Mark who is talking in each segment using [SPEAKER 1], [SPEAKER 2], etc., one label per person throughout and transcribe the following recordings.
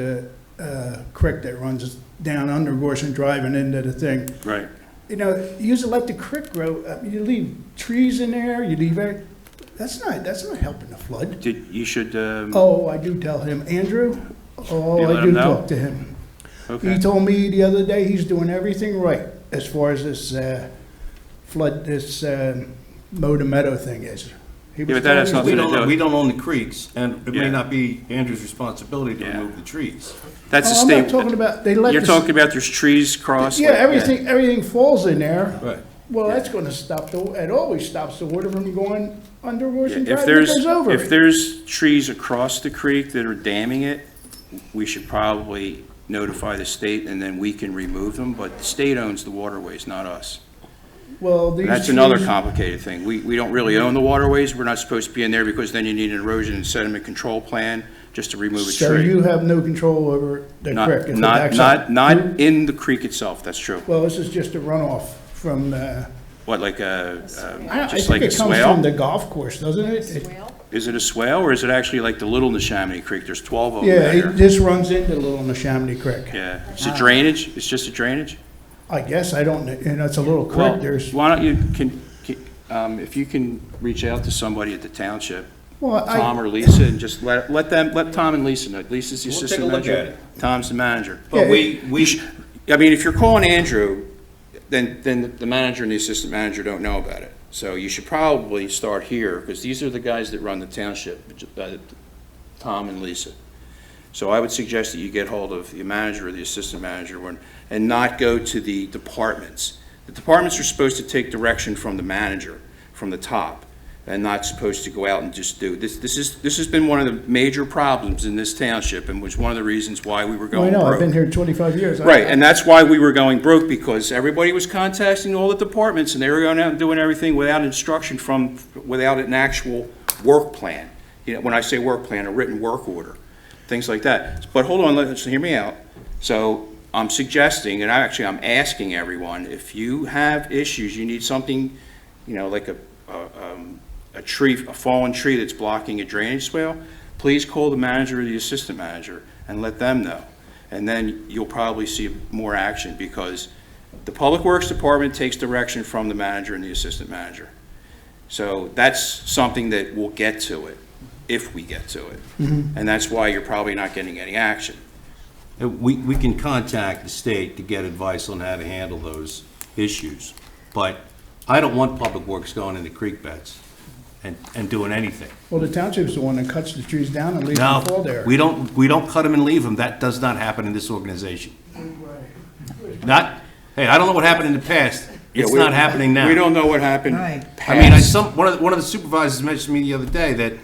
[SPEAKER 1] the uh, creek that runs down under Gorson Drive and into the thing.
[SPEAKER 2] Right,
[SPEAKER 1] You know, you just let the creek grow, up. you leave trees in there, you leave, every- that's not, that's not helping the flood.
[SPEAKER 2] did, you should, um,
[SPEAKER 1] Oh, I do tell him, Andrew,
[SPEAKER 2] You
[SPEAKER 1] oh,
[SPEAKER 2] let
[SPEAKER 1] I
[SPEAKER 2] him
[SPEAKER 1] do
[SPEAKER 2] know?
[SPEAKER 1] talk to him. He
[SPEAKER 2] okay,
[SPEAKER 1] told me the other day, he's doing everything right as far as this uh, flood, this um, mow the meadow thing is. He
[SPEAKER 2] Yeah,
[SPEAKER 1] was
[SPEAKER 2] but that has
[SPEAKER 1] telling me-
[SPEAKER 3] We
[SPEAKER 2] Nothing to do.
[SPEAKER 3] don't, we don't own the creeks, and it
[SPEAKER 2] Yeah.
[SPEAKER 3] may not be Andrew's responsibility to
[SPEAKER 2] Yeah.
[SPEAKER 3] remove the trees.
[SPEAKER 2] that's a
[SPEAKER 1] Oh, I'm not
[SPEAKER 2] state,
[SPEAKER 1] talking about, they let.
[SPEAKER 2] you're
[SPEAKER 1] the-
[SPEAKER 2] talking about there's trees crossed?
[SPEAKER 1] Yeah, everything, everything falls in there.
[SPEAKER 3] Right.
[SPEAKER 1] Well, that's gonna stop the, it always stops the water from going under Washington
[SPEAKER 2] If
[SPEAKER 1] Drive, and it
[SPEAKER 2] there's,
[SPEAKER 1] goes over
[SPEAKER 2] if
[SPEAKER 1] it.
[SPEAKER 2] there's trees across the creek that are damming it, we should probably notify the state and then we can remove them, but the state owns the waterways, not us.
[SPEAKER 1] Well, these
[SPEAKER 2] That's another
[SPEAKER 1] trees-
[SPEAKER 2] complicated thing. We, we don't really own the waterways, we're not supposed to be in there because then you need an erosion and sediment control plan just to remove a
[SPEAKER 1] So
[SPEAKER 2] tree.
[SPEAKER 1] you have no control over the creek?
[SPEAKER 2] Not,
[SPEAKER 1] if it
[SPEAKER 2] not,
[SPEAKER 1] backs up.
[SPEAKER 2] not, not in the creek itself, that's true.
[SPEAKER 1] Well, this is just a runoff from, uh,
[SPEAKER 2] What, like a,
[SPEAKER 1] I I
[SPEAKER 2] uh, just
[SPEAKER 1] think
[SPEAKER 2] like a
[SPEAKER 1] it comes
[SPEAKER 2] swale?
[SPEAKER 1] from the golf course, doesn't it? It-
[SPEAKER 2] Is it a swale, or is it actually like the Little Neshaminy Creek? There's 12 of them
[SPEAKER 1] Yeah,
[SPEAKER 2] there.
[SPEAKER 1] it just runs into Little Neshaminy Creek.
[SPEAKER 2] Yeah, it's a drainage, it's just a drainage?
[SPEAKER 1] I guess, I don't, kn- you know, it's a little
[SPEAKER 2] Well,
[SPEAKER 1] creek, there's,
[SPEAKER 2] why don't you, can, can- um, if you can reach out to somebody at the township,
[SPEAKER 1] well,
[SPEAKER 2] Tom
[SPEAKER 1] I,
[SPEAKER 2] or Lisa, and just let, let them, let Tom and Lisa know. Lisa's the
[SPEAKER 3] We'll take a
[SPEAKER 2] assistant
[SPEAKER 3] look
[SPEAKER 2] manager.
[SPEAKER 3] at it.
[SPEAKER 2] Tom's the manager.
[SPEAKER 1] Yeah,
[SPEAKER 3] But we, we,
[SPEAKER 2] I mean, if you're calling Andrew, then, then the manager and the assistant manager don't know about it. So you should probably start here, because these are the guys that run the township, uh, Tom and Lisa. So I would suggest that you get hold of the manager or the assistant manager when- and not go to the departments. The departments are supposed to take direction from the manager, from the top, and not supposed to go out and just do. This, this is, this has been one of the major problems in this township and was one of the reasons why we were
[SPEAKER 1] I
[SPEAKER 2] going
[SPEAKER 1] know,
[SPEAKER 2] broke.
[SPEAKER 1] I've been here 25 years. I-
[SPEAKER 2] Right, and that's why we were going broke, because everybody was contacting all the departments, and they were going out and doing everything without instruction from, without an actual work plan. You know, when I say work plan, a written work order, things like that. But hold on, let's, hear me out. So I'm suggesting, and I actually, I'm asking everyone, if you have issues, you need something, you know, like a, a, um, a tree, a fallen tree that's blocking a drainage swale, please call the manager or the assistant manager and let them know and then you'll probably see more action, because the Public Works Department takes direction from the manager and the assistant manager. So that's something that we'll get to it, if we get to it.
[SPEAKER 1] Mm-hmm.
[SPEAKER 2] And that's why you're probably not getting any action.
[SPEAKER 3] we, we can contact the state to get advice on how to handle those issues. But I don't want Public Works going into creek beds and, and doing anything.
[SPEAKER 1] Well, the township's the one that cuts the trees down and leaves them fall
[SPEAKER 3] No,
[SPEAKER 1] there.
[SPEAKER 3] we don't, we don't cut them and leave them. That does not happen in this organization. Not, hey, I don't know what happened in the past. It's
[SPEAKER 2] Yeah, we-
[SPEAKER 3] not happening now.
[SPEAKER 2] We don't know what happened
[SPEAKER 4] Right.
[SPEAKER 3] I mean, I,
[SPEAKER 2] past.
[SPEAKER 3] some, one of, the- one of the supervisors mentioned to me the other day that,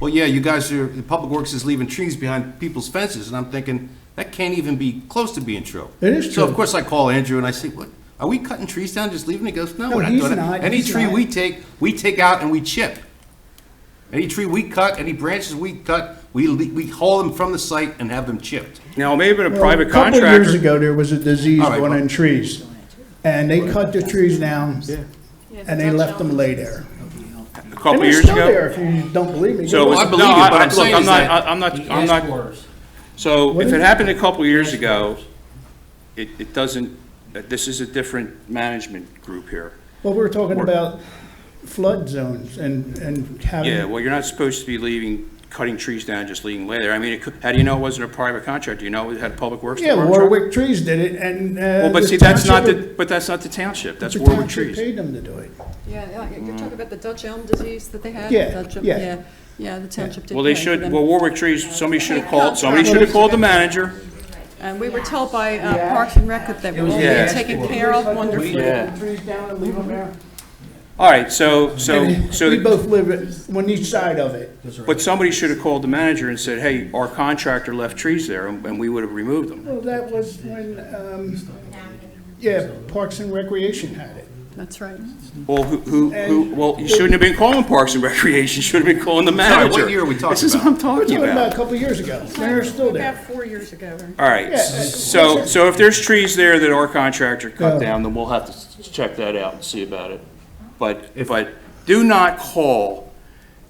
[SPEAKER 3] well, yeah, you guys are, the Public Works is leaving trees behind people's fences, and I'm thinking, that can't even be close to being true.
[SPEAKER 1] It is
[SPEAKER 3] So
[SPEAKER 1] true.
[SPEAKER 3] of course I call Andrew and I say, what, are we cutting trees down, just leaving? He goes, no,
[SPEAKER 1] No,
[SPEAKER 3] we're not
[SPEAKER 1] he's
[SPEAKER 3] doing
[SPEAKER 1] not,
[SPEAKER 3] it. Any
[SPEAKER 1] he's
[SPEAKER 3] tree
[SPEAKER 1] not."
[SPEAKER 3] we take, we take out and we chip. Any tree we cut, any branches we cut, we, le- we haul them from the site and have them chipped.
[SPEAKER 2] Now, maybe in a
[SPEAKER 1] Well,
[SPEAKER 2] private
[SPEAKER 1] A couple of years
[SPEAKER 2] contractor,
[SPEAKER 1] ago, there was a disease
[SPEAKER 3] All right,
[SPEAKER 1] going
[SPEAKER 3] well-
[SPEAKER 1] in trees, and they cut the trees down, and they left them lay there.
[SPEAKER 2] a
[SPEAKER 1] And
[SPEAKER 2] couple
[SPEAKER 1] they're
[SPEAKER 2] years
[SPEAKER 1] still
[SPEAKER 2] ago.
[SPEAKER 1] there, if you don't believe me.
[SPEAKER 2] So, it
[SPEAKER 3] Well,
[SPEAKER 2] was-
[SPEAKER 3] I
[SPEAKER 2] no,
[SPEAKER 3] believe you, but
[SPEAKER 2] I-
[SPEAKER 3] I'm
[SPEAKER 2] look,
[SPEAKER 3] saying
[SPEAKER 2] I'm
[SPEAKER 3] is
[SPEAKER 2] not,
[SPEAKER 3] that-
[SPEAKER 2] I- I'm not, I'm not So
[SPEAKER 1] What
[SPEAKER 2] if
[SPEAKER 1] is
[SPEAKER 2] it
[SPEAKER 1] it?
[SPEAKER 2] happened a couple years ago, it, it doesn't, this is a different management group here.
[SPEAKER 1] Well, we're talking
[SPEAKER 2] We're-
[SPEAKER 1] about flood zones and, and
[SPEAKER 2] Yeah,
[SPEAKER 1] having,
[SPEAKER 2] well, you're not supposed to be leaving, cutting trees down, just leaving later. I mean, it could- how do you know it wasn't a private contractor? You know it had Public Works
[SPEAKER 1] yeah,
[SPEAKER 2] Department? truck?
[SPEAKER 1] Warwick Trees did it, and, uh.
[SPEAKER 2] Well, but
[SPEAKER 1] the
[SPEAKER 2] see, that's not
[SPEAKER 1] township-
[SPEAKER 2] the, but that's not the township, that's
[SPEAKER 1] the
[SPEAKER 2] Warwick
[SPEAKER 1] township
[SPEAKER 2] Trees.
[SPEAKER 1] Paid them to do it.
[SPEAKER 5] Yeah, yeah, you're talking about the Dutch elm disease that they had?
[SPEAKER 1] Mm. Yeah,
[SPEAKER 5] Dutch elm-
[SPEAKER 1] yeah.
[SPEAKER 5] Yeah, the township did
[SPEAKER 2] Well, they
[SPEAKER 5] pay for
[SPEAKER 2] should,
[SPEAKER 5] them.
[SPEAKER 2] well, Warwick Trees, somebody should have called, somebody
[SPEAKER 5] Well,
[SPEAKER 2] should have
[SPEAKER 5] they-
[SPEAKER 2] called the manager.
[SPEAKER 5] And we were told by uh, Parks and Rec that they were all
[SPEAKER 2] Yeah.
[SPEAKER 5] being taken care of wonderfully.
[SPEAKER 2] Yeah.
[SPEAKER 1] Trees down and leave them there.
[SPEAKER 2] All right, so, so, so.
[SPEAKER 1] We both live it- on each side of it.
[SPEAKER 2] But somebody should have called the manager and said, hey, our contractor left trees there, and and we would have removed them.
[SPEAKER 1] Well, that was when, um, yeah, Parks and Recreation had it.
[SPEAKER 5] That's right.
[SPEAKER 2] Well, who, who, who, well, you shouldn't have been calling Parks and Recreation, you should have been calling the
[SPEAKER 3] Sorry,
[SPEAKER 2] manager.
[SPEAKER 3] what year are we talking
[SPEAKER 2] This is what
[SPEAKER 3] about?
[SPEAKER 2] I'm talking
[SPEAKER 1] Talking
[SPEAKER 2] about.
[SPEAKER 1] about a couple years ago, they're still there.
[SPEAKER 5] About four years ago. right?
[SPEAKER 2] All right, so, so if there's trees there that our contractor cut down, then we'll have to s- check that out and see about it. But, but do not call,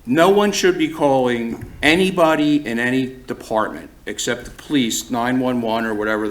[SPEAKER 2] no one should be calling anybody in any department. except the police, 911 or whatever